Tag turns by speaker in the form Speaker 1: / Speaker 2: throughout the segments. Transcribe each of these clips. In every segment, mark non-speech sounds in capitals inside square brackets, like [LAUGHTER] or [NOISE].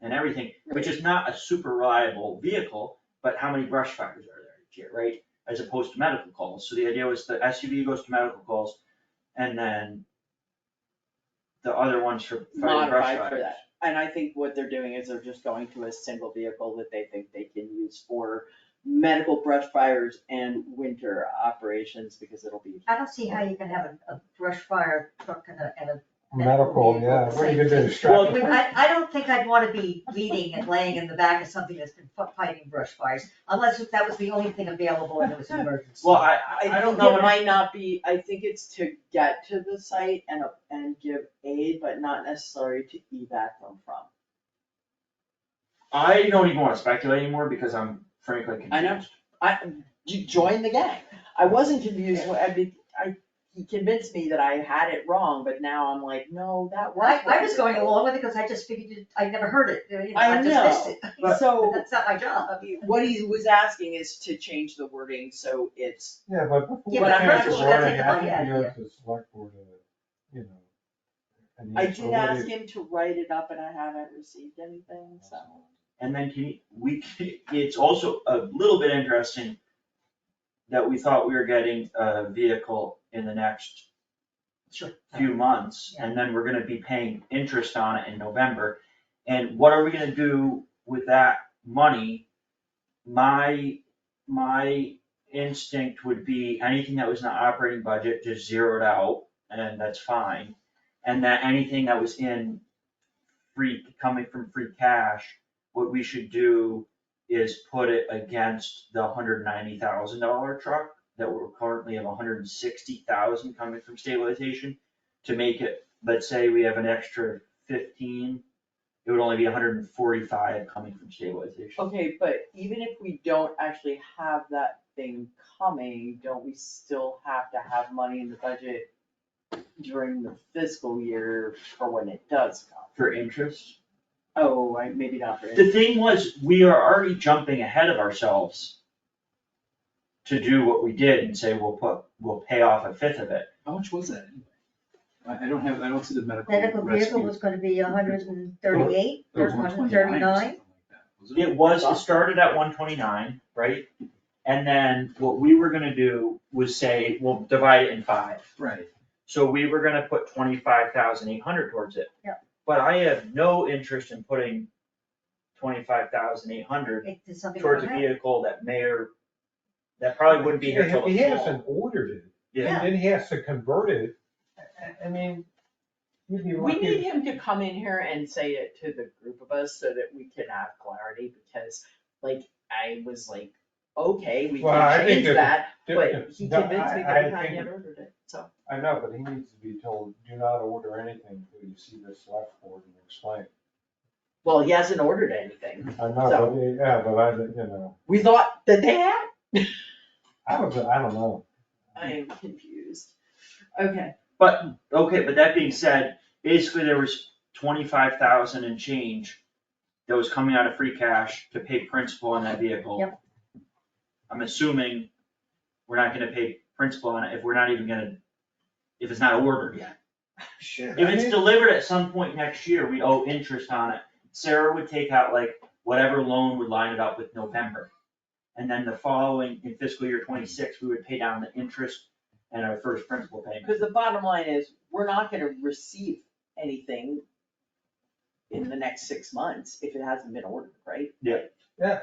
Speaker 1: and everything, which is not a super reliable vehicle, but how many brush fires are there each year, right? As opposed to medical calls, so the idea was the SUV goes to medical calls, and then the other ones for fighting brush
Speaker 2: Modified for
Speaker 1: fires.
Speaker 2: that. And I think what they're doing is they're just going to a single vehicle that they think they can use for medical brush fires and winter operations because it'll be.
Speaker 3: I don't see how you can have a, a brush fire truck and a, and a.
Speaker 4: Medical, yeah, what are you gonna do,
Speaker 1: Well,
Speaker 4: strap
Speaker 3: I
Speaker 4: it?
Speaker 3: mean, I, I don't think I'd wanna be leading and laying in the back of something that's been fi- fighting brush fires, unless if that was the only thing available and it was an emergency.
Speaker 1: Well, I, I don't know,
Speaker 2: It
Speaker 1: what I-
Speaker 2: might not be, I think it's to get to the site and, uh, and give aid, but not necessarily to evac them from.
Speaker 1: I don't even wanna speculate anymore, because I'm frankly confused.
Speaker 2: I know. I, you joined the gang. I wasn't confused, when- I mean, I, he convinced me that I had it wrong, but now I'm like, no, that was.
Speaker 3: I, I
Speaker 2: what
Speaker 3: was
Speaker 2: it
Speaker 3: going
Speaker 2: was.
Speaker 3: along with it because I just figured, it- I never heard it, you know,
Speaker 2: I
Speaker 3: I just missed it.
Speaker 1: But-
Speaker 2: So
Speaker 3: [LAUGHS] That's not my job.
Speaker 2: what he was asking is to change the wording, so it's,
Speaker 4: Yeah, but before
Speaker 3: Yeah,
Speaker 4: you
Speaker 2: but I'm
Speaker 4: change
Speaker 2: not
Speaker 4: the
Speaker 2: sure
Speaker 3: that's
Speaker 4: wording,
Speaker 3: a
Speaker 4: I
Speaker 3: good
Speaker 4: think you
Speaker 3: idea.
Speaker 4: have to select board, uh, you know. and
Speaker 2: I
Speaker 4: use the
Speaker 2: did ask
Speaker 4: wording.
Speaker 2: him to write it up and I haven't received anything, so.
Speaker 1: And then can, you- we, [LAUGHS] can- it's also a little bit interesting that we thought we were getting a vehicle in the next
Speaker 3: Sure.
Speaker 1: few months, and then we're gonna be paying interest on it in November. And what are we gonna do with that money? My, my instinct would be anything that was in the operating budget, just zero it out, and that's fine. And that anything that was in free, coming from free cash, what we should do is put it against the hundred ninety thousand dollar truck that we're currently have hundred and sixty thousand coming from stabilization to make it, let's say we have an extra fifteen, it would only be hundred and forty-five coming from stabilization.
Speaker 2: Okay, but even if we don't actually have that thing coming, don't we still have to have money in the budget during the fiscal year for when it does come?
Speaker 1: For interest,
Speaker 2: Oh, I, maybe not for.
Speaker 1: the thing was, we are already jumping ahead of ourselves to do what we did and say we'll put, we'll pay off a fifth of it.
Speaker 5: How much was that anyway? I, I don't have, I don't see the medical rescue.
Speaker 3: Medical vehicle was gonna be hundred and thirty-eight,
Speaker 5: It was
Speaker 3: or hundred and
Speaker 5: 129 or
Speaker 3: thirty-nine.
Speaker 5: something like that, wasn't
Speaker 1: It was, it started at one twenty-nine, right? And then what we were gonna do was say, we'll divide it in five.
Speaker 5: Right,
Speaker 1: So we were gonna put twenty-five thousand eight hundred towards it.
Speaker 3: Yeah.
Speaker 1: But I have no interest in putting twenty-five thousand eight hundred
Speaker 3: It did something
Speaker 1: towards a
Speaker 3: like that.
Speaker 1: vehicle that may or, that probably wouldn't be here till
Speaker 4: He
Speaker 1: the fall.
Speaker 4: hasn't ordered it,
Speaker 1: Yeah,
Speaker 4: and then he has to convert it, I, I mean, you'd be
Speaker 2: We need
Speaker 4: lucky.
Speaker 2: him to come in here and say it to the group of us so that we can have clarity, because like, I was like, okay, we
Speaker 4: Well, I
Speaker 2: can
Speaker 4: think
Speaker 2: change
Speaker 4: there's a
Speaker 2: that,
Speaker 4: to-
Speaker 2: but he
Speaker 4: No,
Speaker 2: convinced me
Speaker 4: I- I
Speaker 2: that I
Speaker 4: think-
Speaker 2: never heard it, so.
Speaker 4: I know, but he needs to be told, do not order anything until you see this select board and explain.
Speaker 2: Well, he hasn't ordered anything.
Speaker 4: I know, but, yeah, but I, you know,
Speaker 2: We thought that they had.
Speaker 4: I was, I don't know.
Speaker 2: I am confused. Okay,
Speaker 1: but, okay, but that being said, basically there was twenty-five thousand and change that was coming out of free cash to pay principal on that vehicle.
Speaker 3: Yep.
Speaker 1: I'm assuming we're not gonna pay principal on it if we're not even gonna, if it's not ordered yet.
Speaker 4: Shit.
Speaker 1: If it's delivered at some point next year, we owe interest on it. Sarah would take out like whatever loan would line it up with November. And then the following, in fiscal year twenty-six, we would pay down the interest and our first principal payment.
Speaker 2: because the bottom line is, we're not gonna receive anything in the next six months if it hasn't been ordered, right?
Speaker 4: Yeah,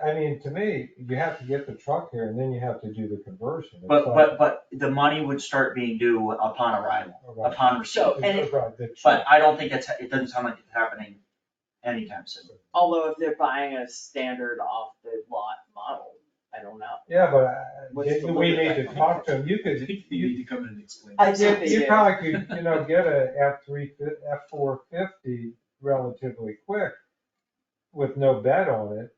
Speaker 4: I mean, to me, you have to get the truck here and then you have to do the conversion. It's
Speaker 1: But,
Speaker 4: like-
Speaker 1: but, but the money would start being due upon arrival,
Speaker 4: All oh, right.
Speaker 1: upon receipt.
Speaker 2: So- and it-
Speaker 4: Right, the
Speaker 1: But
Speaker 4: truck.
Speaker 1: I don't think that's, it doesn't sound like it's happening anytime soon.
Speaker 2: Although if they're buying a standard off the lot model, I don't know.
Speaker 4: Yeah, but I-
Speaker 5: What's the
Speaker 4: you- we
Speaker 5: limit
Speaker 4: need to
Speaker 5: on
Speaker 4: talk to
Speaker 5: that?
Speaker 4: him, you
Speaker 5: I
Speaker 4: could,
Speaker 5: think you
Speaker 4: you,
Speaker 5: need to come in and explain.
Speaker 2: I
Speaker 5: this.
Speaker 2: do think-
Speaker 4: you probably could, you know, get a F three, F four fifty relatively quick with no bet on it,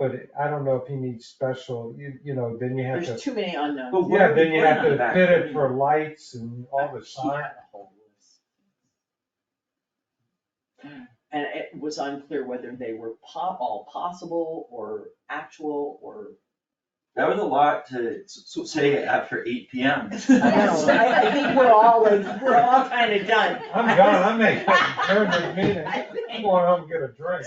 Speaker 4: but I don't know if he needs special, you, you know, then you have
Speaker 2: There's
Speaker 4: to,
Speaker 2: too many unknowns.
Speaker 1: But what
Speaker 4: yeah,
Speaker 1: are we
Speaker 4: then you
Speaker 1: putting
Speaker 4: have
Speaker 1: on the
Speaker 4: to
Speaker 1: back?
Speaker 4: fit it for lights and all the
Speaker 2: He
Speaker 4: signs.
Speaker 2: had a whole list. And it was unclear whether they were po- all possible or actual or.
Speaker 1: That was a lot to
Speaker 5: So, so.
Speaker 1: say
Speaker 5: [LAUGHS]
Speaker 1: after eight P M.
Speaker 2: [LAUGHS] I know, [LAUGHS] I, I think we're all like, we're all kinda done.
Speaker 4: I'm done, I'm making, turn the meeting,
Speaker 2: I
Speaker 3: [LAUGHS]
Speaker 4: I'm
Speaker 2: think-
Speaker 4: going home and get a drink.